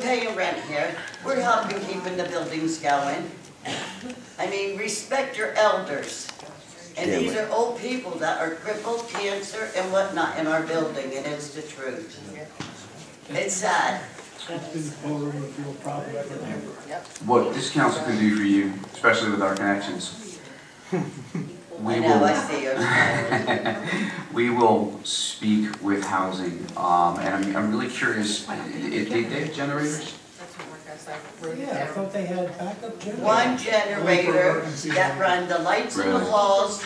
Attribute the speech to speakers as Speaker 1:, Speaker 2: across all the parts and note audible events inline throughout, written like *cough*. Speaker 1: paying rent here, we're helping keeping the buildings going. I mean, respect your elders. And
Speaker 2: Yeah,
Speaker 1: these
Speaker 2: but-
Speaker 1: are old people that are crippled, cancer and whatnot in our building, and it's the truth. It's sad.
Speaker 3: That's been over with real problem ever, ever.
Speaker 4: what this council can do for you, especially with our connections.
Speaker 1: I
Speaker 4: We
Speaker 1: know, I
Speaker 4: will,
Speaker 1: see you.
Speaker 4: we will speak with housing, um, and I'm, I'm really curious, i- i- they, they have generators?
Speaker 3: Yeah, I thought they had backup generators.
Speaker 1: One generator that run the lights in the
Speaker 4: Really?
Speaker 1: halls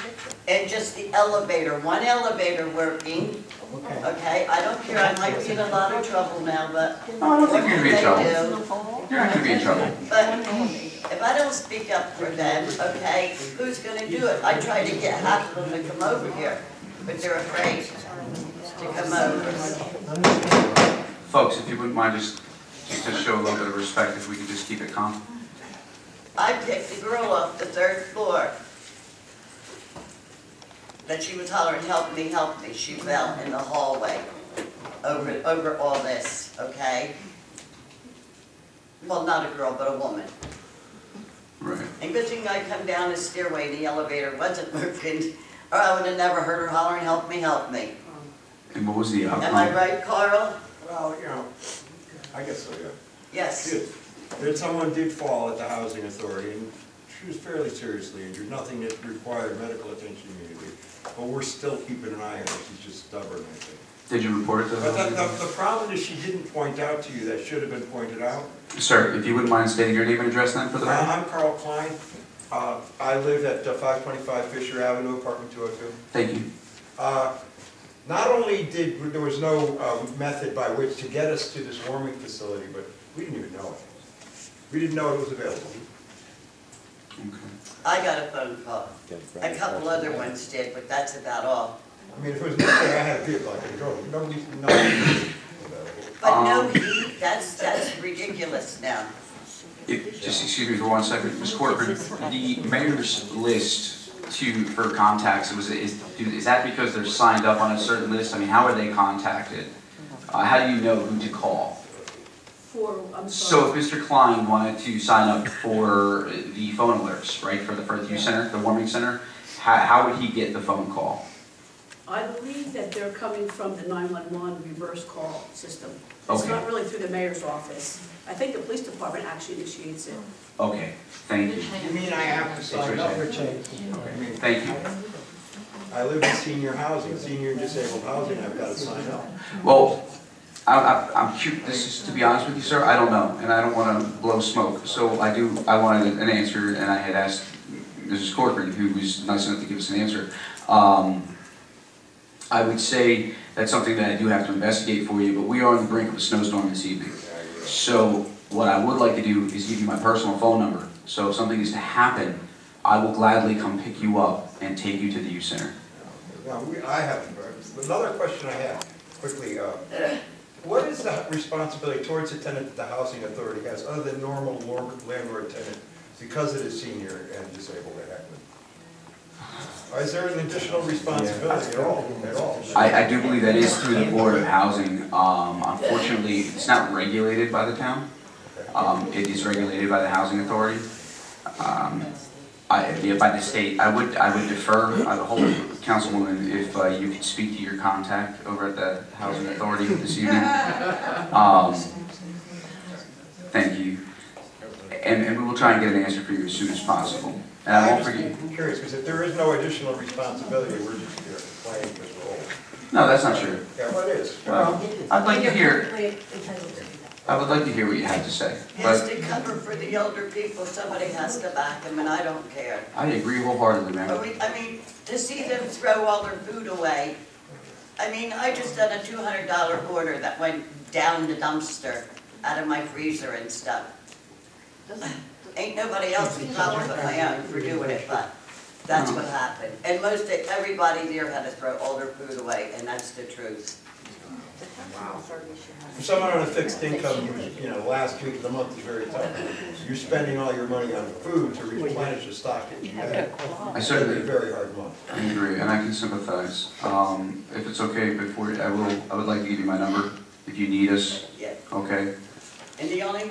Speaker 1: and just the elevator, one elevator working,
Speaker 3: Okay.
Speaker 1: okay? I don't care, I might be in a lot of trouble now, but
Speaker 4: No, Oh, I don't
Speaker 1: what
Speaker 4: think
Speaker 1: can
Speaker 4: you're gonna be
Speaker 1: they
Speaker 4: in trouble.
Speaker 1: do?
Speaker 4: You're not gonna be in trouble.
Speaker 1: But if I don't speak up for them, okay, who's gonna do it? I try to get half of them to come over here, but they're afraid to come over.
Speaker 4: Folks, if you wouldn't mind, just, just to show a little bit of respect, if we could just keep it calm.
Speaker 1: I picked a girl off the third floor. That she was hollering, help me, help me. She fell in the hallway over, over all this, okay? Well, not a girl, but a woman.
Speaker 4: Right.
Speaker 1: And good thing I come down the stairway, and the elevator wasn't *laughs* working, or I would have never heard her hollering, help me, help me.
Speaker 4: And what was the
Speaker 1: Am I
Speaker 4: outcome?
Speaker 1: right, Carl?
Speaker 5: Well, you know, I guess so, yeah.
Speaker 1: Yes.
Speaker 5: Good. That someone did fall at the housing authority, and she was fairly seriously injured, nothing that required medical attention immediately. But we're still keeping an eye on her, she's just stubborn, I think.
Speaker 4: Did you report it to
Speaker 5: But the,
Speaker 4: the?
Speaker 5: the, the problem is she didn't point out to you, that should have been pointed out.
Speaker 4: Sir, if you wouldn't mind stating your name and address then for the
Speaker 5: Uh,
Speaker 4: record?
Speaker 5: I'm Carl Klein, uh, I live at five twenty-five Fisher Avenue, apartment two oh two.
Speaker 4: Thank you.
Speaker 5: Uh, Not only did, there was no uh, method by which to get us to this warming facility, but we didn't even know it. We didn't know it was available.
Speaker 4: Okay.
Speaker 1: I got a phone call. A couple other ones did, but that's about all.
Speaker 5: I mean, if it was me, I had a vehicle, I could go, nobody, nobody.
Speaker 1: But no
Speaker 4: Um.
Speaker 1: heat, that's, that's ridiculous now.
Speaker 4: If- Just excuse me for one second, Ms. Corcoran, the mayor's list to, for contacts, was, it- is, is that because they're signed up on a certain list? I mean, how are they contacted? Uh, how do you know who to call?
Speaker 6: For, I'm
Speaker 4: So
Speaker 6: sorry.
Speaker 4: if Mr. Klein wanted to sign up for the phone alerts, right, for the Firth Youth Center, the warming center, how, how would he get the phone call?
Speaker 6: I believe that they're coming from the 911 reverse call system. It's
Speaker 4: Okay.
Speaker 6: not really through the mayor's office. I think the police department actually initiates it.
Speaker 4: Okay, thank you,
Speaker 5: You mean I have to
Speaker 3: Sign
Speaker 5: sign
Speaker 3: up
Speaker 5: up?
Speaker 3: for change.
Speaker 5: I mean,
Speaker 4: thank you.
Speaker 5: I live in senior housing, senior and disabled housing, I've got to sign up.
Speaker 4: Well, I, I, I'm cu this is, to be honest with you, sir, I don't know, and I don't wanna blow smoke, so I do, I wanted an answer, and I had asked Mrs. Corcoran, who was nice enough to give us an answer. Um, I would say that's something that I do have to investigate for you, but we are on the brink of a snowstorm this evening. So what I would like to do is give you my personal phone number, so if something is to happen, I will gladly come pick you up and take you to the youth center.
Speaker 5: Now, we, I have, another question I have, quickly, uh, what is the responsibility towards the tenant that the housing authority has, other than normal lor- landlord tenant, because it is senior and disabled at Heckman? Is there an additional responsibility at all, at all?
Speaker 4: I, I do believe that is through the Board of Housing. Um, unfortunately, it's not regulated by the town. Um, it is regulated by the Housing Authority. Um, I, yeah, by the state. I would, I would defer, I would hold, Councilwoman, if uh, you could speak to your contact over at the Housing Authority this evening. Um, thank you. And, and we will try and get an answer for you as soon as possible. And I won't forget,
Speaker 5: I'm curious, because if there is no additional responsibility, we're just here playing this role.
Speaker 4: no, that's not true.
Speaker 5: Yeah, well, it is.
Speaker 4: Well, I'd like to hear,
Speaker 7: Well,
Speaker 4: I would like to hear what you have to say,
Speaker 1: Has
Speaker 4: but
Speaker 1: to cover for the older people, somebody has to back them, and I don't care.
Speaker 4: I agree wholeheartedly,
Speaker 1: But
Speaker 4: ma'am.
Speaker 1: we, I mean, to see them throw all their food away, I mean, I just done a two hundred dollar order that went down the dumpster out of my freezer and stuff.
Speaker 6: *laughs*
Speaker 1: Ain't nobody else's problem but my own for doing it, but that's what happened. And most, everybody there had to throw all their food away, and that's the truth.
Speaker 5: For someone on a fixed income, who's, you know, the last week of the month is very tough. You're spending all your money on food to replenish the stock that you had.
Speaker 4: I
Speaker 5: It's gonna be a
Speaker 4: certainly
Speaker 5: very hard month.
Speaker 4: agree, and I can sympathize. Um, if it's okay, before, I will, I would like to give you my number if you need us,
Speaker 1: Yeah,
Speaker 4: okay?
Speaker 1: And the only